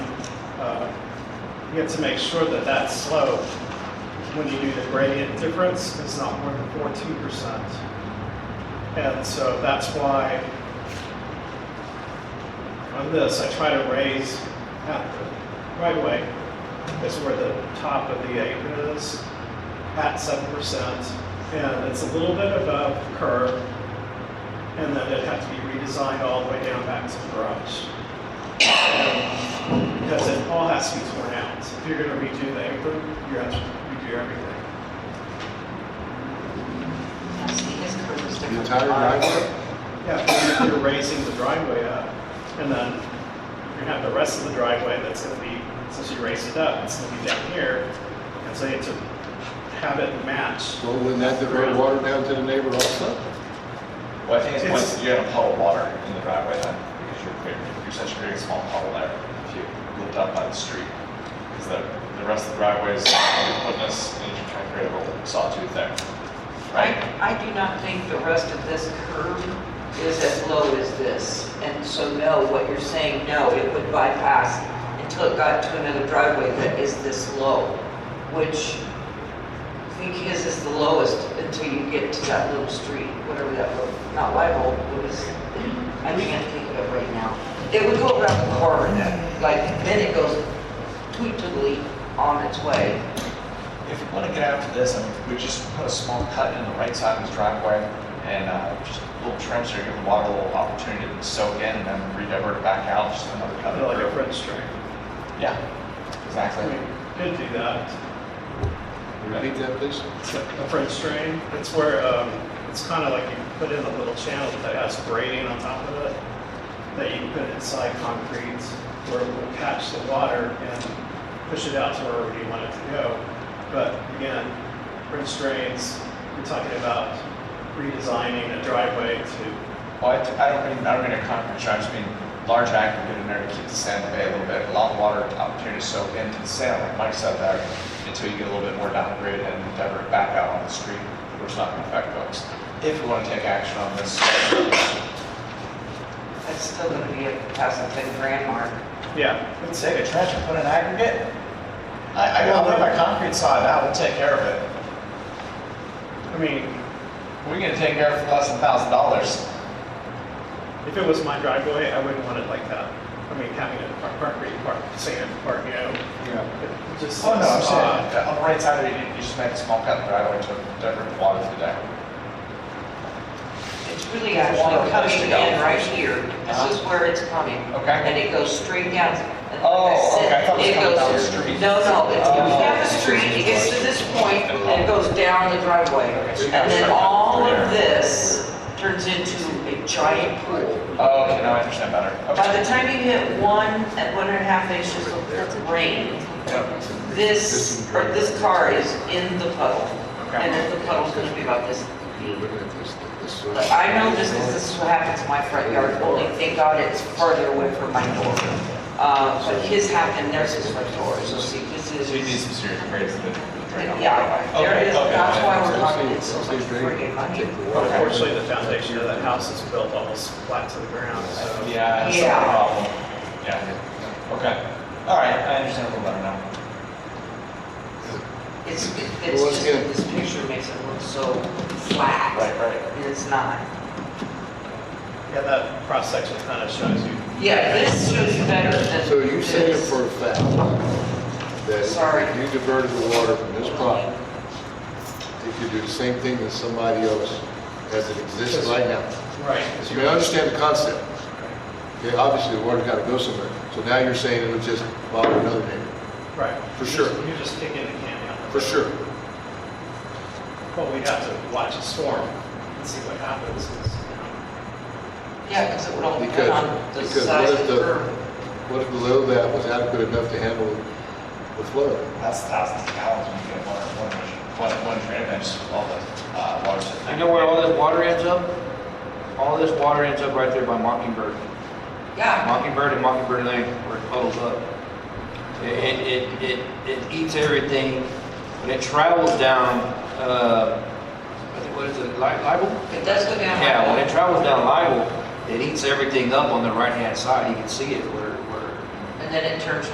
Uh, You have to make sure that that slope, when you do the gradient difference, is not more than fourteen percent. And so that's why on this, I try to raise at the right away, is where the top of the apron is, at seven percent. And it's a little bit above the curve, and then it'd have to be redesigned all the way down back to the garage because it all has to be torn out. If you're gonna redo the apron, you have to redo everything. I see his curve is The different. entire driveway? Yeah, but you're- you're raising the driveway up, and then you're gonna have the rest of the driveway that's gonna be, since you raised it up, it's gonna be down here. And so you have to have it match. Well, wouldn't that divert water down to the neighbor also? Well, I think it's It's- once you have a puddle of water in the driveway then, because you're, creating- you're such a very small puddle there, if you looked up by the street. Because the, the rest of the driveways, you're putting this, and you're trying to create a little sawtooth there, I, right? I do not think the rest of this curve is as low as this. And so no, what you're saying, no, it would bypass until it got to another driveway that is this low, which I think his is the lowest until you get to that little street, whatever that, little- not White Hole, what is, I can't think of it right now. It would go around the corner then, like, then it goes tweetedly on its way. If you want to get after this, I mean, we just put a small cut in the right side of this driveway and uh, just a little trim so you give the water a little opportunity to soak in and then redivert it back out, just another cut. Kind of like a French drain. Yeah, I exactly. mean, you could do that. Repeat that, please. It's like a French drain. It's where, um, it's kind of like you put in a little channel that has grating on top of it that you put inside concrete where it will catch the water and push it out to wherever you want it to go. But again, French drains, you're talking about redesigning a driveway to, Well, I, I don't mean, I don't mean a concrete structure, I just mean large aggregate in there to keep the sand away a little bit, allow water opportunity to soak into the sand, like Mike said there, until you get a little bit more downgrade and divert it back out on the street, where it's not going to affect folks. If you want to take action on this, That's still gonna be a past the ten grand mark. yeah. I would say the trash and put in aggregate. I, I got one of my concrete saw now, we'll take care of it. I mean, We're going to take care of it for less than thousand dollars. if it was my driveway, I wouldn't want it like that. I mean, having a par- concrete part, sand part, you know, Yeah. it just. Oh, no, I'm seems odd. saying, on the right side, of it, you, you just make a small cut in the driveway to divert the water through there. It's really actually coming in right here. This is where it's coming. Uh-huh. Okay. And it goes straight down. And like I Oh, okay, I said, thought it was it goes- coming down the street. No, no, it comes Oh. down the street, it gets to this point, and it goes down the driveway. Okay, so you And gotta then start up all there. of this turns into a giant pool. Oh, okay, now I understand better. By the time you hit one, at one and a half inches of rain, this, or this car is in the puddle. Okay. And then the puddle's gonna be about this You're looking at this, this. But I know this is, this is what happens in my front yard, only thank God it's farther away from my door. Uh, but his happened, there's his front door, so see, this is, So you need some serious grades to drain off. yeah, there it is, Okay, that's okay. why we're talking, it's so much friggin' money. Unfortunately, the foundation of that house is built almost flat to the ground, so. Oh, Yeah, that's Yeah. not a problem. Yeah, okay. All right, I understand a little better now. It's, it's just, that this picture makes it look so flat, Right, right. and it's not. Yeah, that cross section kind of shows you. Yeah, this shows you better than So you say it this. for a fact that Sorry. if you diverted the water from this property, you could do the same thing that somebody else as it exists right now. Right. So you understand the concept. Okay, obviously the water's got to go somewhere. So now you're saying it'll just bother another neighbor, Right. For sure. You're just kicking the can down. the for road. sure. But we have to watch a storm and see what happens. is, you know, Yeah, because it would only Because- come on the because size what of if the the- curb. What if below that was adequate enough to handle the flood? That's thousands of gallons when you get one, one, one, one drain bench, all the, uh, water. You know where all this water ends up? All this water ends up right there by Mockingbird. Yeah, Mockingbird and Mockingbird Lane where it puddles up. It, it, it, it eats everything. When it travels down, uh, I think- what is it, Li- Libel? it does go down. like Yeah, when that. it travels down Libel, it eats everything up on the right-hand side. You can see it where, where And then it turns